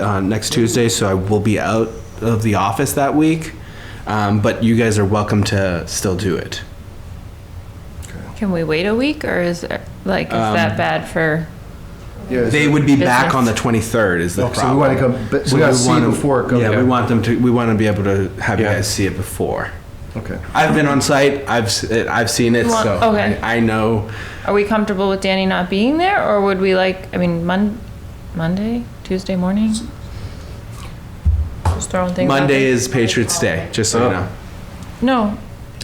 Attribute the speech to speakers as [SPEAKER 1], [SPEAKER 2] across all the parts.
[SPEAKER 1] uh, next Tuesday, so I will be out of the office that week. Um, but you guys are welcome to still do it.
[SPEAKER 2] Can we wait a week or is, like, is
[SPEAKER 1] Um,
[SPEAKER 2] that bad for,
[SPEAKER 3] Yeah,
[SPEAKER 1] They
[SPEAKER 3] so-
[SPEAKER 1] would be back
[SPEAKER 2] Business.
[SPEAKER 1] on the 23rd. Is the
[SPEAKER 3] Oh, so we
[SPEAKER 1] problem?
[SPEAKER 3] wanna come- but we gotta see
[SPEAKER 1] wanna-
[SPEAKER 3] before it goes
[SPEAKER 1] Yeah, we
[SPEAKER 3] out.
[SPEAKER 1] want them to. We want to be able to have you
[SPEAKER 3] Yeah.
[SPEAKER 1] guys see it before.
[SPEAKER 3] Okay.
[SPEAKER 1] I've been on site. I've s- it- I've seen it,
[SPEAKER 2] You want-
[SPEAKER 1] so
[SPEAKER 2] okay.
[SPEAKER 1] I, I know.
[SPEAKER 2] are we comfortable with Danny not being there or would we like, I mean, Mon, Monday, Tuesday morning? Just throwing things out
[SPEAKER 1] Monday
[SPEAKER 2] there.
[SPEAKER 1] is Patriots Day, just
[SPEAKER 3] Oh.
[SPEAKER 1] so you know.
[SPEAKER 2] No,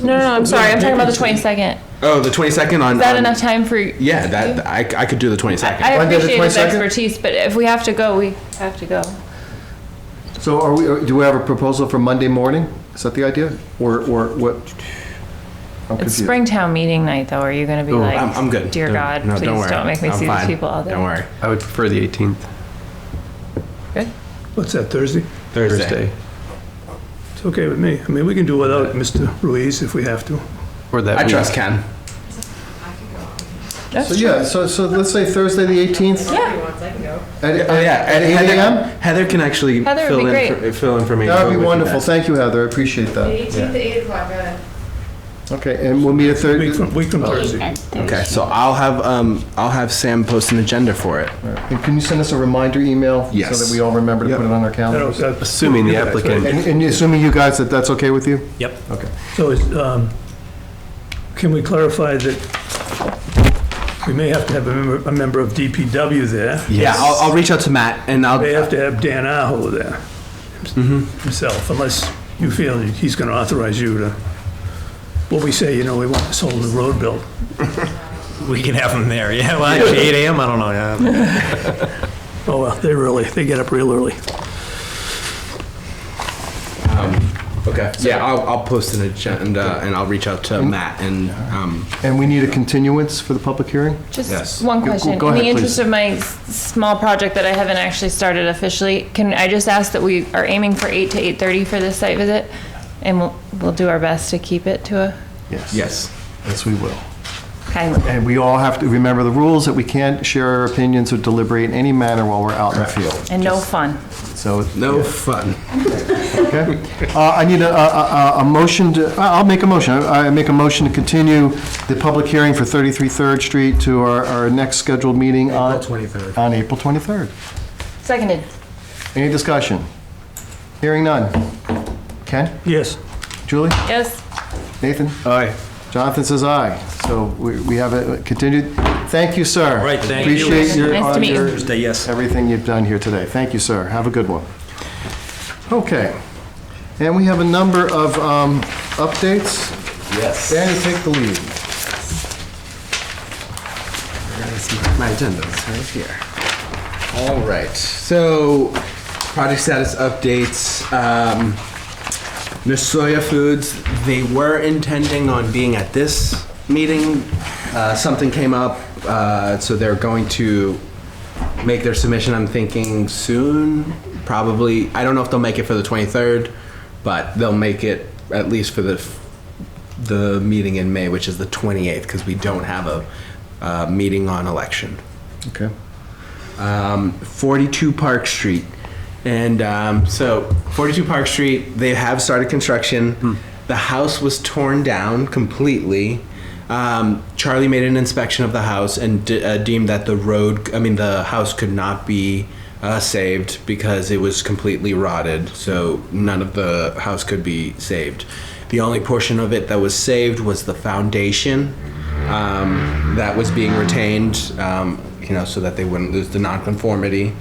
[SPEAKER 2] no, no, no, I'm sorry, I'm talking about the twenty-second. Is
[SPEAKER 1] Oh, the 22nd on.
[SPEAKER 2] that
[SPEAKER 1] on-
[SPEAKER 2] enough time for? you?
[SPEAKER 1] Yeah, that I, I could do the 22nd.
[SPEAKER 2] I
[SPEAKER 3] Monday the
[SPEAKER 2] appreciate his
[SPEAKER 3] 22nd?
[SPEAKER 2] expertise, but if we have to go, we have to go.
[SPEAKER 3] So are we, are- do we have a proposal for Monday morning? Is that the idea? Or, or what? I'm
[SPEAKER 2] It's
[SPEAKER 3] confused.
[SPEAKER 2] Springtown meeting night though, are you gonna be
[SPEAKER 4] Oh,
[SPEAKER 2] like?
[SPEAKER 1] I'm, I'm good.
[SPEAKER 2] Dear
[SPEAKER 1] Don't-
[SPEAKER 2] God,
[SPEAKER 1] no,
[SPEAKER 2] please
[SPEAKER 1] worry.
[SPEAKER 2] don't make me
[SPEAKER 1] I'm
[SPEAKER 2] see these
[SPEAKER 1] fine.
[SPEAKER 2] people all day.
[SPEAKER 1] Don't worry.
[SPEAKER 4] I would prefer the 18th
[SPEAKER 2] Good?
[SPEAKER 5] What's that, Thursday?
[SPEAKER 4] Thursday,
[SPEAKER 5] It's okay with me. I mean, we can do without Mr. Ruiz if we have to.
[SPEAKER 4] or that
[SPEAKER 1] I
[SPEAKER 4] week.
[SPEAKER 1] trust Ken.
[SPEAKER 3] So, yeah, so, so let's say Thursday, the 18th?
[SPEAKER 2] Yeah,
[SPEAKER 3] At,
[SPEAKER 1] Oh yeah,
[SPEAKER 3] at
[SPEAKER 1] and
[SPEAKER 3] 8
[SPEAKER 1] Heather,
[SPEAKER 3] AM?
[SPEAKER 1] Heather can actually
[SPEAKER 2] Heather would
[SPEAKER 1] fill
[SPEAKER 2] be
[SPEAKER 1] in
[SPEAKER 2] great.
[SPEAKER 1] for, fill in for me.
[SPEAKER 3] That would
[SPEAKER 1] We
[SPEAKER 3] be
[SPEAKER 1] can
[SPEAKER 3] wonderful.
[SPEAKER 1] ask.
[SPEAKER 3] Thank you, Heather. I appreciate that.
[SPEAKER 6] 18th, 8 o'clock, got it.
[SPEAKER 3] Okay, and we'll meet at
[SPEAKER 5] Week
[SPEAKER 3] Thursday.
[SPEAKER 5] from, week from Thursday.
[SPEAKER 1] Okay, so I'll have um I'll have Sam post an agenda for it.
[SPEAKER 3] And can you send us a reminder email? So
[SPEAKER 1] Yes.
[SPEAKER 3] that we all remember to put it on our
[SPEAKER 5] That'll-
[SPEAKER 3] calendars?
[SPEAKER 5] that-
[SPEAKER 4] Assuming the
[SPEAKER 5] Yeah, that's right.
[SPEAKER 4] applicant,
[SPEAKER 3] And, and assuming you guys, that that's okay with you?
[SPEAKER 5] Yep.
[SPEAKER 3] Okay.
[SPEAKER 5] So is, um, can we clarify that we may have to have a member, a member of DPW there?
[SPEAKER 1] Yeah, I'll, I'll reach out to Matt and I'll.
[SPEAKER 5] They have to have Dan Aho there himself, unless you feel that he's gonna authorize you to, what we say, you know, we want this whole new road built.
[SPEAKER 7] We can have them there. Yeah, well, actually, 8 a.m. I don't know. Yeah.
[SPEAKER 5] Oh, well, they really, they get up real early.
[SPEAKER 1] Okay. Yeah, I'll, I'll post an agenda and I'll reach out
[SPEAKER 3] Mm-hmm.
[SPEAKER 1] to Matt and um.
[SPEAKER 3] And we need a continuance for the public hearing?
[SPEAKER 1] Yes.
[SPEAKER 2] Just one
[SPEAKER 3] Go- go-
[SPEAKER 2] question.
[SPEAKER 3] go
[SPEAKER 2] In the
[SPEAKER 3] ahead,
[SPEAKER 2] interest
[SPEAKER 3] please.
[SPEAKER 2] of my s- small project that I haven't actually started officially, can I just ask that we are aiming for 8 to 8:30 for this site visit? And we'll, we'll do our best to keep it to a
[SPEAKER 3] Yes.
[SPEAKER 1] Yes.
[SPEAKER 3] Yes, we will.
[SPEAKER 2] kindly.
[SPEAKER 3] And we all have to remember the rules that we can't share our opinions or deliberate in any manner while we're out in the field.
[SPEAKER 2] And no fun.
[SPEAKER 3] So,
[SPEAKER 1] No fun.
[SPEAKER 3] okay. Uh, I need a, a, a- a motion to, I- I'll make a motion. I I make a motion to continue the public hearing for 33 Third Street to our, our next scheduled meeting on. April 23rd. On April 23rd.
[SPEAKER 2] Seconded.
[SPEAKER 3] Any discussion? Hearing none. Ken?
[SPEAKER 5] Yes.
[SPEAKER 3] Julie?
[SPEAKER 2] Yes?
[SPEAKER 3] Nathan?
[SPEAKER 1] Aye.
[SPEAKER 3] Jonathan says aye. So we, we have it continued. Thank you, sir.
[SPEAKER 7] All right, thank you.
[SPEAKER 3] Appreciate your. uh,
[SPEAKER 2] Nice to meet you.
[SPEAKER 3] your-
[SPEAKER 7] Thursday, yes.
[SPEAKER 3] everything you've done here today. Thank you, sir. Have a good one. Okay. And we have a number of um, updates. Yes. Danny, take the lead.
[SPEAKER 1] My agenda is right here. All right. So, project status updates. Um, Nasoya Foods, they were intending on being at this meeting. Uh, something came up, uh, so they're going to make their submission, I'm thinking soon. Probably, I don't know if they'll make it for the 23rd, but they'll make it at least for the the meeting in May, which is the 28th, because we don't have a uh, meeting on election
[SPEAKER 3] Okay.
[SPEAKER 1] um, 42 Park Street. And um, so, 42 Park Street, they have started construction. The house was torn down completely. Um, Charlie made an inspection of the house and de- uh, deemed that the road, I mean, the house could not be uh, saved because it was completely rotted. So, none of the house could be saved. The only portion of it that was saved was the foundation um, that was being retained, um, you know, so that they wouldn't lose the nonconformity.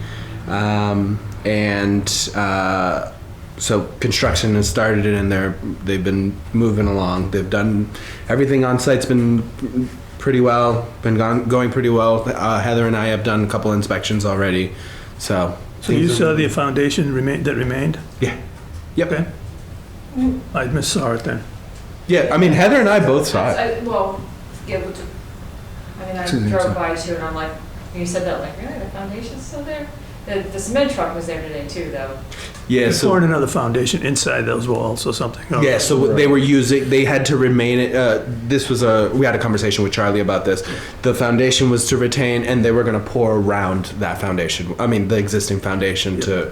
[SPEAKER 1] Um, and uh, so construction has started and they're, they've been moving along. They've done, everything on site's been pretty well, been gone, going pretty well. Uh, Heather and I have done a couple inspections already, so.
[SPEAKER 5] So you saw the foundation remain, that remained?
[SPEAKER 1] Yeah. Yep.
[SPEAKER 5] Okay. I missed saw it then.
[SPEAKER 1] Yeah, I mean, Heather and I both saw it.
[SPEAKER 6] I- Well, yeah, but, I mean, I
[SPEAKER 3] Two things, huh?
[SPEAKER 6] drove by too, and I'm like, when you said that, like, really, the foundation's still there? The, the cement truck was there today too, though.
[SPEAKER 1] Yeah,
[SPEAKER 5] They
[SPEAKER 1] so-
[SPEAKER 5] poured another foundation inside those walls or something. oh.
[SPEAKER 1] Yeah, so they were using, they had to remain, it- uh, this was a, we had a conversation with Charlie about this. The foundation was to retain, and they were gonna pour around that foundation, I mean, the existing foundation to